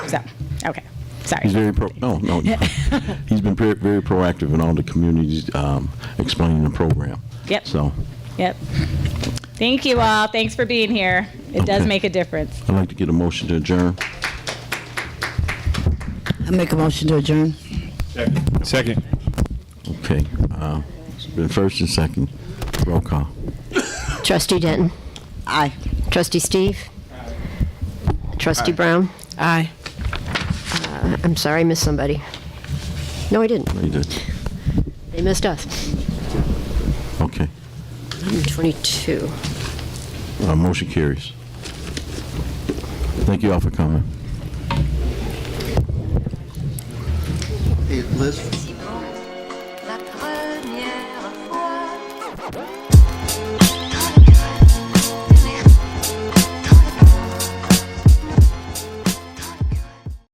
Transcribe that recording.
Okay, sorry. He's very pro, no, no. He's been very very proactive in all the communities um, explaining the program. Yep. So Yep. Thank you all. Thanks for being here. It does Okay. make a difference. I'd like to get a motion to adjourn. I make a motion to adjourn. Second. Okay. uh, It's been first and second. Roll call. Trustee Denton. Aye. Trustee Steve. Trustee Brown. Aye. I- I'm sorry, I missed somebody. No, I didn't. You did. They missed us. Okay. Number 22. Uh, Motion carries. Thank you all for coming. Hey, Liz,